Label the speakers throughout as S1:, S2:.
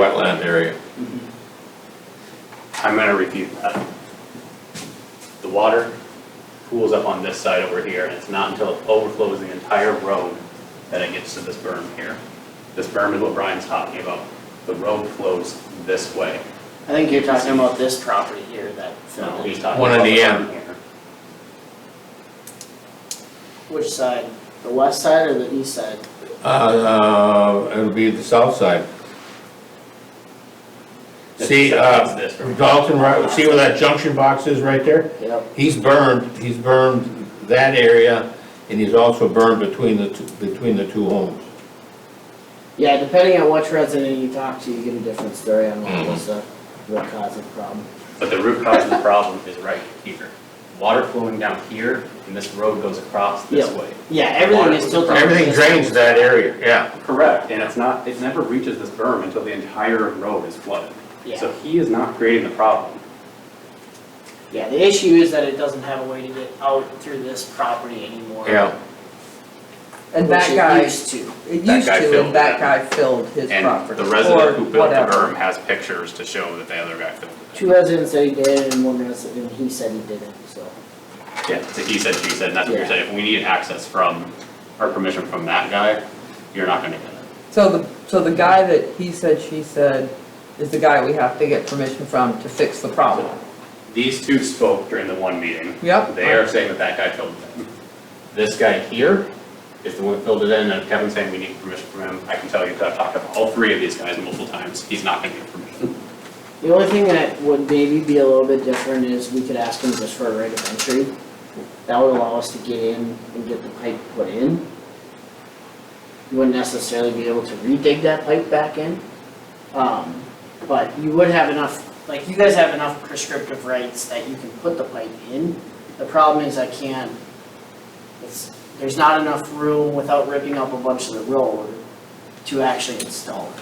S1: wetland area.
S2: Mm-hmm.
S3: I'm gonna review that. The water pools up on this side over here, and it's not until it overflows the entire road that it gets to this berm here. This berm is what Brian's talking about. The road flows this way.
S2: I think you're talking about this property here that
S3: No,
S2: filled
S3: he's
S2: in.
S3: talking
S1: One
S3: about
S1: on
S3: the
S1: the
S3: berm
S1: end.
S3: here.
S2: Which side? The west side or the east side?
S1: Uh, uh, it'll be the south side. See,
S3: It's
S1: uh,
S3: this berm.
S1: Dalton, right, see where that junction box is right there?
S2: Yep.
S1: He's burned, he's burned that area, and he's also burned between the, two- between the two homes.
S2: Yeah, depending on which resident you talk to, you get a different story on what
S1: Mhm.
S2: was the root cause of the problem.
S3: But the root cause of the problem is right here. Water flowing down here, and this road goes across this
S2: Yeah.
S3: way.
S2: Yeah, everything is
S3: Water-
S2: still.
S1: Everything drains that area, yeah.
S3: Correct, and it's not, it never reaches this berm until the entire road is flooded. So
S2: Yeah,
S3: he is not creating the problem.
S2: yeah, the issue is that it doesn't have a way to get out through this property anymore.
S1: Yeah.
S4: And
S2: which
S4: that
S2: it
S4: guy,
S2: used to.
S4: it
S3: That
S4: used
S3: guy
S4: to,
S3: filled
S4: and that
S3: it.
S4: guy filled his
S3: And
S4: property,
S3: the
S4: or
S3: resident who built the
S4: whatever.
S3: berm has pictures to show that the other guy filled it.
S2: Two residents said he did and one resident, and he said he didn't, so.
S3: Yeah, so he said, she said, and that's what you're
S2: Yeah.
S3: saying, if we need access from, or permission from that guy, you're not gonna get it.
S4: So the, so the guy that he said, she said, is the guy we have to get permission from to fix the problem.
S3: These two spoke during the one meeting.
S4: Yep.
S3: They are saying that that guy filled it in. This guy here is the one who filled it in, and Kevin's saying we need permission from him. I can tell you, 'cause I've talked to all three of these guys multiple times, he's not gonna get permission.
S2: The only thing that would maybe be a little bit different is we could ask them just for a right of entry. That would allow us to get in and get the pipe put in. You wouldn't necessarily be able to re-dig that pipe back in. Um, but you would have enough, like, you guys have enough prescriptive rights that you can put the pipe in. The problem is I can't, it's, there's not enough room without ripping up a bunch of the road to actually install it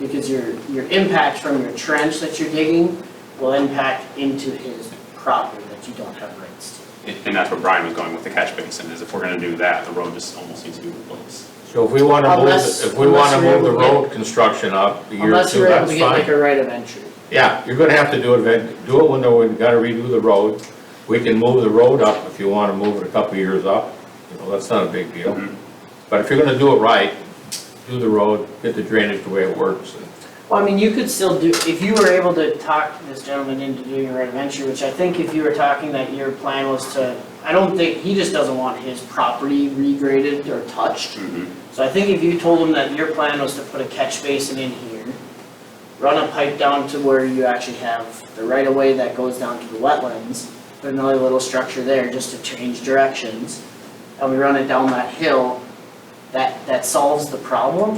S2: because your, your impact from your trench that you're digging will impact into his property that you don't have rights to.
S3: And and that's where Brian was going with the catch basin, is if we're gonna do that, the road just almost needs to be replaced.
S1: So if we wanna move,
S2: Unless-
S1: if we wanna
S2: unless you're
S1: move the
S2: able to get-
S1: road construction up a year or
S2: Unless
S1: two,
S2: you're able
S1: that's
S2: to get like
S1: fine.
S2: a right of entry.
S1: Yeah, you're gonna have to do it, event- do it when we gotta redo the road. We can move the road up if you wanna move it a couple years up, you know, that's not a big deal.
S3: Mhm.
S1: But if you're gonna do it right, do the road, get the drainage the way it works. and-
S2: Well, I mean, you could still do, if you were able to talk this gentleman into doing a right of entry, which I think if you were talking that your plan was to, I don't think, he just doesn't want his property regraded or touched.
S3: Mm-hmm.
S2: So I think if you told him that your plan was to put a catch basin in here, run a pipe down to where you actually have the right of way that goes down to the wetlands, put another little structure there just to change directions, and we run it down that hill, that, that solves the problem.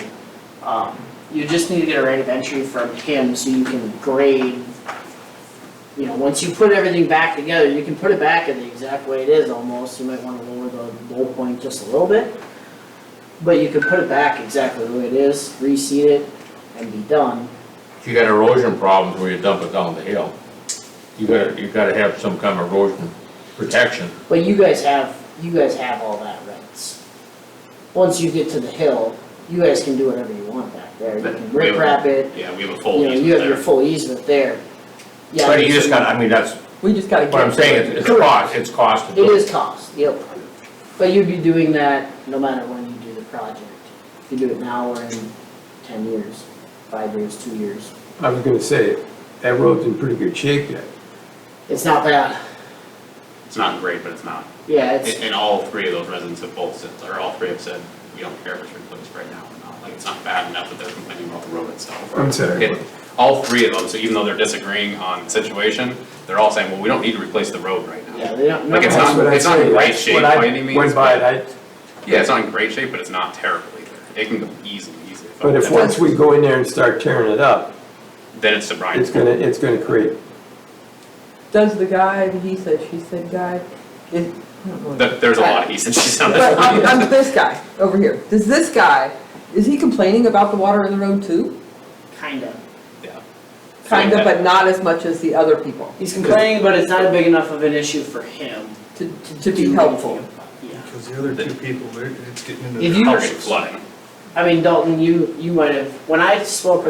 S2: Um, you just need to get a right of entry from him so you can grade, you know, once you put everything back together, you can put it back in the exact way it is almost, you might wanna lower the low point just a little bit. But you can put it back exactly the way it is, reseed it, and be done.
S1: If you got erosion problems where you dump it down the hill, you gotta, you gotta have some kind of erosion protection.
S2: But you guys have, you guys have all that rights. Once you get to the hill, you guys can do whatever you want back there. You can rip wrap it,
S3: Yeah, we have a
S2: you
S3: full
S2: know,
S3: easement
S2: you have your
S3: there.
S2: full easement there. Yeah,
S1: But you
S2: it's-
S1: just gotta, I mean, that's
S4: We just gotta get.
S1: what I'm saying, it's, it's cost, it's cost. to
S2: It
S1: do
S2: is cost, yep. But you'd be doing that no matter when you do the project. If you do it now or in ten years, five years, two years.
S5: I was gonna say, that road's in pretty good shape yet.
S2: It's not bad.
S3: It's not great, but it's not.
S2: Yeah,
S3: And,
S2: it's,
S3: and all three of those residents have both said, or all three have said, we don't care if it's replaced right now or not. Like, it's not bad enough that they're complaining about the road itself.
S5: I'm sorry.
S3: It- All three of them, so even though they're disagreeing on the situation, they're all saying, well, we don't need to replace the road right now.
S2: yeah, they don't.
S3: Like, it's
S2: no-
S3: not-
S5: That's what I
S3: not in
S5: say,
S3: great
S5: that's
S3: shape
S5: when I
S3: by any means,
S5: Went by it, I,
S3: Yeah, it's not in great shape, but it's not terrible either. It can go easily, easily.
S5: but if once we go in there and start tearing it up,
S3: Then it's to Brian's.
S5: it's gonna, it's gonna create,
S4: Does the guy, the he said, she said guy, is, I don't know.
S3: There- There's a lot of he's and she's on
S4: But I'm,
S3: this.
S4: I'm this guy over here. Does this guy, is he complaining about the water in the road too?
S2: Kinda.
S3: Yeah.
S4: Kind of, but not as much as the other people,
S2: He's complaining, but it's not big enough of an issue for him
S4: to,
S2: to.
S4: to
S2: do
S4: be helpful.
S2: anything about- Yeah.
S6: Because the other two people, they're- it's getting into.
S2: If
S6: their
S2: you-
S3: Helping
S6: houses.
S3: flooding.
S2: I mean, Dalton, you, you might have, when I spoke